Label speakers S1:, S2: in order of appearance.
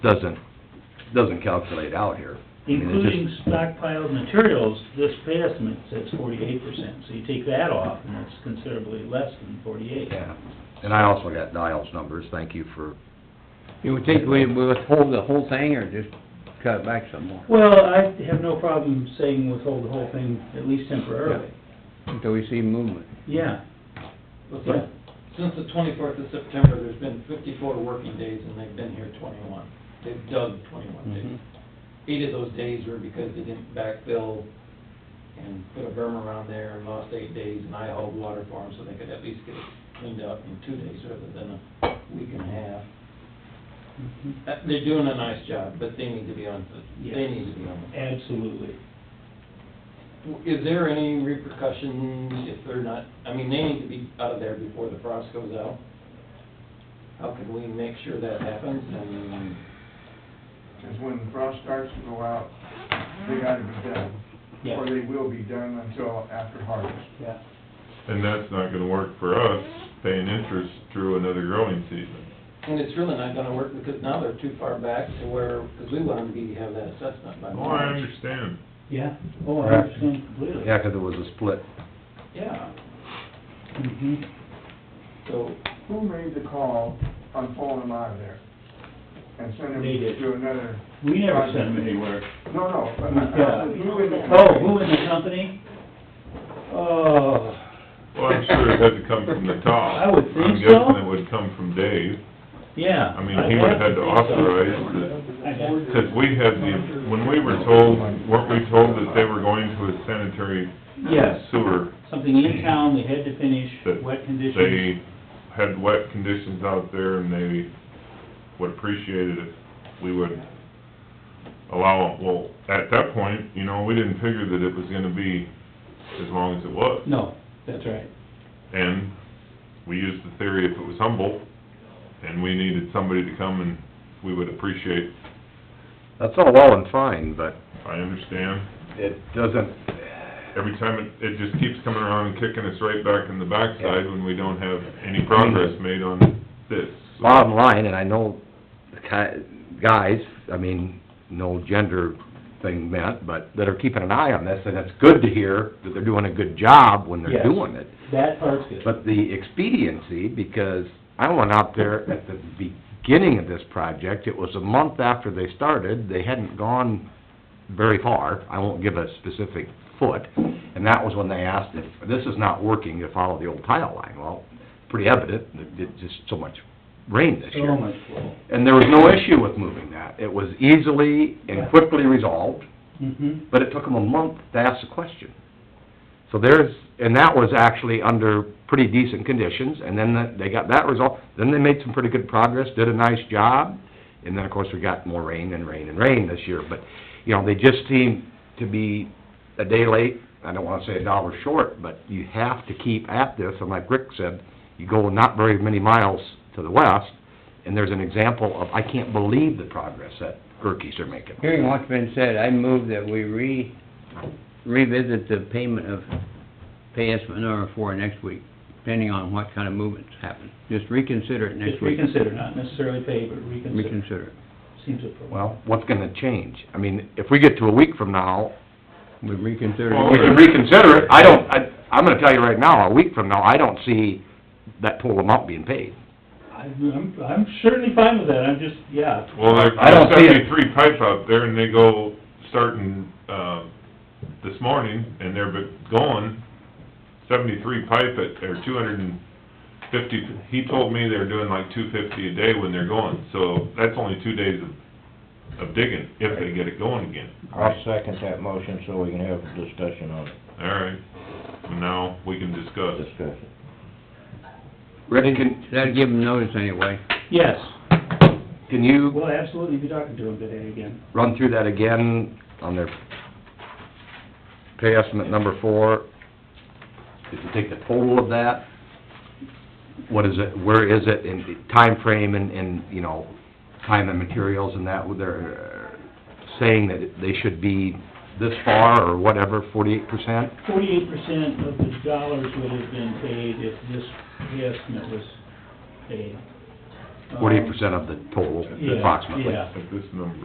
S1: doesn't, doesn't calculate out here. I mean, it just-
S2: Including stockpiled materials, this pay estimate says forty-eight percent, so you take that off, and it's considerably less than forty-eight.
S1: Yeah, and I also got Dial's numbers, thank you for,
S3: You would think we would withhold the whole thing or just cut it back some more
S2: Well, I have no problem saying withhold the whole thing, at least temporarily,
S3: until we see movement?
S2: yeah.
S4: Well,
S2: Yeah.
S4: since- Since the twenty-fourth of September, there's been fifty-four working days, and they've been here twenty-one. They've dug twenty-one days.
S2: Mm-hmm.
S3: Mhm.
S4: Eight of those days were because they didn't backfill and put a berm around there and lost eight days, and I hauled water for them so they could at least get it cleaned up in two days rather than a week and a half.
S2: Mhm.
S4: Uh, They're doing a nice job, but they need to be on, they
S2: Yes.
S4: need to be on.
S2: Absolutely.
S4: Is there any repercussions if they're not, I mean, they need to be out of there before the frost goes out? How can we make sure that happens and,
S5: Because when the frost starts to go out, they gotta be done,
S2: Yeah,
S5: or they will be done until after harvest.
S2: yeah.
S6: And that's not gonna work for us, paying interest through another growing season.
S4: and it's really not gonna work because now they're too far back to where, because we want them to be, have that assessment by
S6: Oh, I
S4: March.
S6: understand.
S2: Yeah, oh, I understand completely.
S1: yeah, 'cause it was a split.
S4: Yeah,
S2: Mhm.
S4: so,
S5: Who made the call on pulling them out of there? And sending
S2: They did.
S5: them to another,
S2: We never sent them anywhere.
S5: no, no, but I- I- who in the...
S2: Oh, who in the company? Oh,
S6: Well, I'm sure it had to come from the top.
S2: I would think
S6: I'm
S2: so.
S6: guessing it would come from Dave.
S2: yeah.
S6: I mean, he would've had to authorize the, because we had the, when we were told, weren't we told that they were going to a sanitary
S2: Yes.
S6: sewer?
S2: Something in town, they had to finish,
S6: That
S2: wet conditions.
S6: They had wet conditions out there and they would appreciate it if we would allow, well, at that point, you know, we didn't figure that it was gonna be as long as it was.
S2: No, that's right.
S6: And we used the theory if it was Humboldt, and we needed somebody to come and we would appreciate,
S1: That's all well and fine, but
S6: I understand.
S1: it doesn't,
S6: Every time it, it just keeps coming around and kicking us right back in the backside when we don't have any progress made on this. So,
S1: bottom line, and I know the ki- guys, I mean, no gender thing meant, but that are keeping an eye on this, and it's good to hear that they're doing a good job when they're
S2: Yes.
S1: doing it.
S2: That part's good.
S1: But the expediency, because I went out there at the beginning of this project, it was a month after they started, they hadn't gone very far, I won't give a specific foot, and that was when they asked if, this is not working, to follow the old tile line. Well, pretty evident, that it just so much rain this year.
S2: So much flow.
S1: And there was no issue with moving that, it was easily and quickly resolved,
S2: Mm-hmm.
S1: but it took them a month to ask the question. So there's, and that was actually under pretty decent conditions, and then that- they got that result, then they made some pretty good progress, did a nice job, and then, of course, we got more rain and rain and rain this year, but, you know, they just seem to be a day late, I don't wanna say a dollar short, but you have to keep at this, and like Rick said, you go not very many miles to the west, and there's an example of, I can't believe the progress that Gerkeys are making.
S3: Hearing what's been said, I move that we re, revisit the payment of pay estimate number four next week, depending on what kind of movements happen. Just reconsider it next
S2: Just
S3: week.
S2: reconsider, not necessarily pay, but reconsider.
S3: Reconsider it.
S2: Seems appropriate.
S1: Well, what's gonna change? I mean, if we get to a week from now,
S3: We reconsider
S6: Well,
S1: we
S3: it.
S1: can reconsider it. I don't, I, I'm gonna tell you right now, a week from now, I don't see that total amount being paid.
S2: I- I'm, I'm certainly fine with that, I'm just, yeah.
S6: Well, there-
S1: I don't
S6: there's
S1: see it.
S6: seventy-three pipe out there and they go starting, uh, this morning and they're been going seventy-three pipe at, or two hundred and fifty, he told me they're doing like two fifty a day when they're going. So that's only two days of, of digging, if they get it going again.
S7: I'll second that motion so we can have a discussion on it,
S6: All right, Well, now we can discuss.
S7: discussion.
S1: Rick, can,
S3: That'll give them notice anyway.
S2: Yes,
S1: can you
S2: we'll absolutely be talking to him today again.
S1: run through that again on their pay estimate number four? If you take the total of that, what is it, where is it in the time frame and, and, you know, time and materials and that, they're saying that they should be this far or whatever, forty-eight percent?
S2: Forty-eight percent of the dollars would have been paid if this pay estimate was paid.
S1: forty-eight percent of the total
S2: Yeah,
S1: approximately.
S2: Uh, yeah.
S6: At this number.